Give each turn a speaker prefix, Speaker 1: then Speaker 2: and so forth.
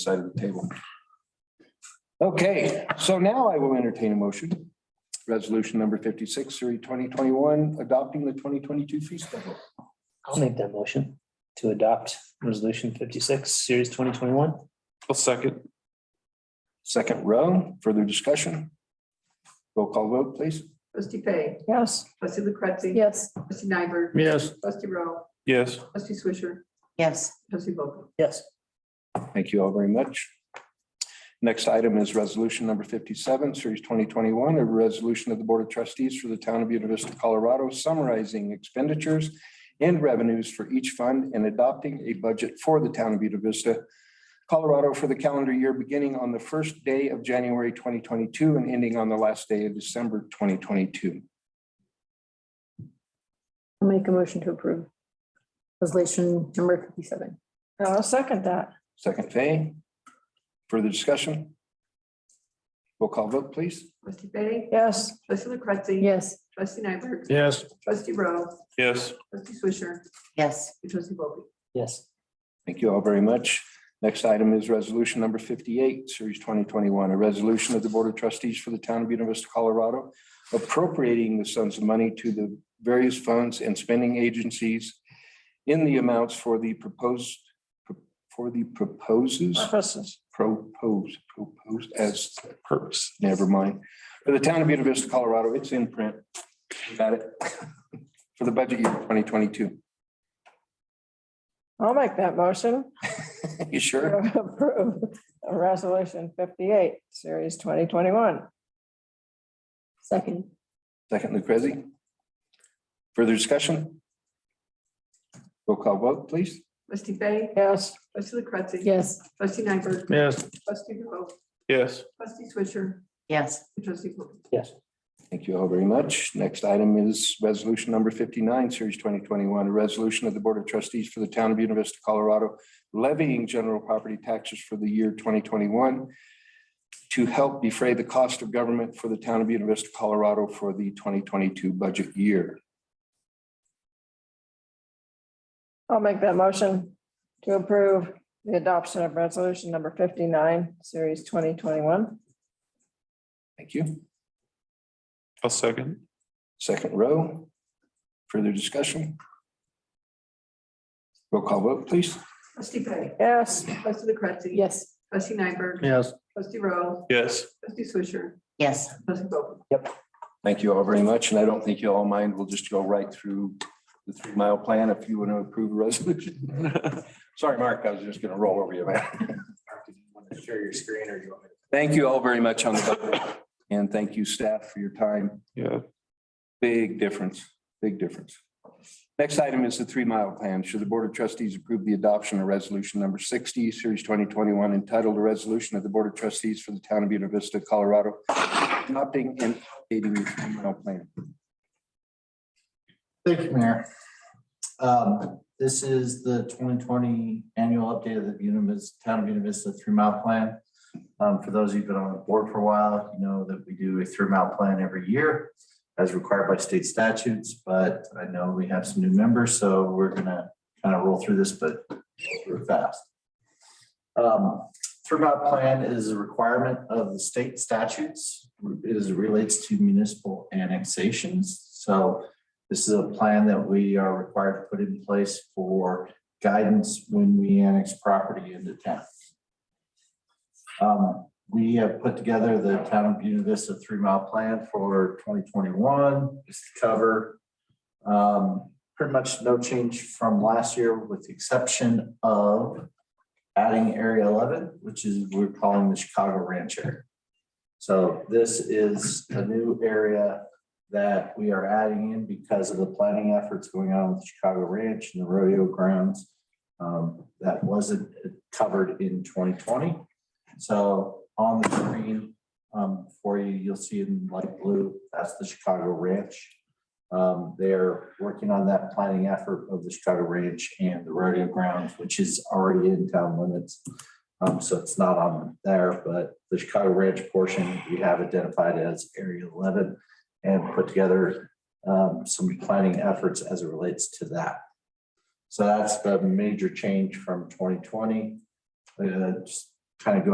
Speaker 1: side of the table. Okay, so now I will entertain a motion. Resolution number fifty-six, three, 2021, adopting the twenty twenty-two fee schedule.
Speaker 2: I'll make that motion to adopt resolution fifty-six, series twenty twenty-one.
Speaker 3: I'll second.
Speaker 1: Second row, further discussion. Roll call vote, please.
Speaker 4: Trustee Fay,
Speaker 2: Yes.
Speaker 4: trustee Lucrezi.
Speaker 5: Yes.
Speaker 4: Trustee Nyberg,
Speaker 3: Yes.
Speaker 4: trustee Rowe,
Speaker 3: Yes.
Speaker 4: trustee Swisher,
Speaker 5: Yes.
Speaker 4: trustee Vogel.
Speaker 2: Yes.
Speaker 1: Thank you all very much. Next item is resolution number fifty-seven, series twenty twenty-one, a resolution of the Board of Trustees for the Town of Buena Vista, Colorado, summarizing expenditures and revenues for each fund and adopting a budget for the Town of Buena Vista, Colorado, for the calendar year beginning on the first day of January twenty twenty-two and ending on the last day of December twenty twenty-two.
Speaker 5: I'll make a motion to approve. Resolution number fifty-seven.
Speaker 6: I'll second that.
Speaker 1: Second, Fay. Further discussion? Roll call vote, please.
Speaker 4: Trustee Fay,
Speaker 6: Yes,
Speaker 4: trustee Lucrezi.
Speaker 5: Yes.
Speaker 4: Trustee Nyberg,
Speaker 3: Yes.
Speaker 4: trustee Rowe,
Speaker 3: Yes.
Speaker 4: trustee Swisher,
Speaker 5: Yes.
Speaker 4: and trustee Vogel.
Speaker 2: Yes.
Speaker 1: Thank you all very much. Next item is resolution number fifty-eight, series twenty twenty-one, a resolution of the Board of Trustees for the Town of Buena Vista, Colorado, appropriating the sums of money to the various funds and spending agencies in the amounts for the proposed, for the proposes,
Speaker 6: purposes.
Speaker 1: propose, propose as,
Speaker 3: Purpose.
Speaker 1: never mind. For the Town of Buena Vista, Colorado, it's in print. You Got it? For the budget year twenty twenty-two.
Speaker 6: I'll make that motion.
Speaker 1: You
Speaker 6: to
Speaker 1: sure?
Speaker 6: Approve Resolution fifty-eight, series twenty twenty-one.
Speaker 5: Second.
Speaker 1: Second, Lucrezi. Further discussion? Roll call vote, please.
Speaker 4: Trustee Fay,
Speaker 6: Yes,
Speaker 4: trustee Lucrezi.
Speaker 5: Yes.
Speaker 4: Trustee Nyberg,
Speaker 3: Yes.
Speaker 4: trustee Rowe,
Speaker 3: Yes.
Speaker 4: trustee Swisher,
Speaker 5: Yes.
Speaker 4: and trustee Vogel.
Speaker 1: Thank you all very much. Next item is resolution number fifty-nine, series twenty twenty-one, a resolution of the Board of Trustees for the Town of Buena Vista, Colorado, levying general property taxes for the year twenty twenty-one to help defray the cost of government for the Town of Buena Vista, Colorado for the twenty twenty-two budget year.
Speaker 6: I'll make that motion to approve the adoption of resolution number fifty-nine, series twenty twenty-one.
Speaker 1: Thank you.
Speaker 3: I'll second.
Speaker 1: Second row. Further discussion? Roll call vote, please.
Speaker 4: Trustee Fay,
Speaker 6: Yes,
Speaker 4: trustee Lucrezi.
Speaker 5: Yes.
Speaker 4: Trustee Nyberg,
Speaker 3: Yes.
Speaker 4: trustee Rowe,
Speaker 3: Yes.
Speaker 4: trustee Swisher,
Speaker 5: Yes.
Speaker 4: trustee Vogel.
Speaker 1: Thank you all very much, and I don't think you all mind. We'll just go right through the three mile plan if you want to approve the resolution. Sorry, Mark, I was just going to roll over you, man.
Speaker 2: Share your screen or do you want me
Speaker 1: Thank you all very much on the, vote, and thank you, staff, for your time.
Speaker 3: Yeah.
Speaker 1: Big difference, big difference. Next item is the three mile plan. Should the Board of Trustees approve the adoption of resolution number sixty, series twenty twenty-one, entitled a resolution of the Board of Trustees for the Town of Buena Vista, Colorado, adopting and updating the three mile plan?
Speaker 7: Thank you, Mayor. Um, This is the twenty twenty annual update of the Buena Vista, Town of Buena Vista Three Mile Plan. Um, For those who've been on the board for a while, you know that we do a three mile plan every year as required by state statutes, but I know we have some new members, so we're gonna kind of roll through this, but we're fast. Um, Three mile plan is a requirement of the state statutes. It is- relates to municipal annexations, so this is a plan that we are required to put in place for guidance when we annex property into town. Um, we have put together the town of Buena Vista three mile plan for twenty twenty-one, just to cover. um, pretty much no change from last year with the exception of adding area eleven, which is we're calling the Chicago Ranch area. So this is a new area that we are adding in because of the planning efforts going on with Chicago Ranch and the rodeo grounds. um, that wasn't covered in twenty twenty. So on the screen, um, for you, you'll see in light blue, that's the Chicago Ranch. Um, they're working on that planning effort of the Chicago Ranch and the rodeo grounds, which is already in town limits. Um, so it's not on there, but the Chicago Ranch portion, we have identified as area eleven and put together um, some planning efforts as it relates to that. So that's the major change from twenty twenty. kind of Uh, go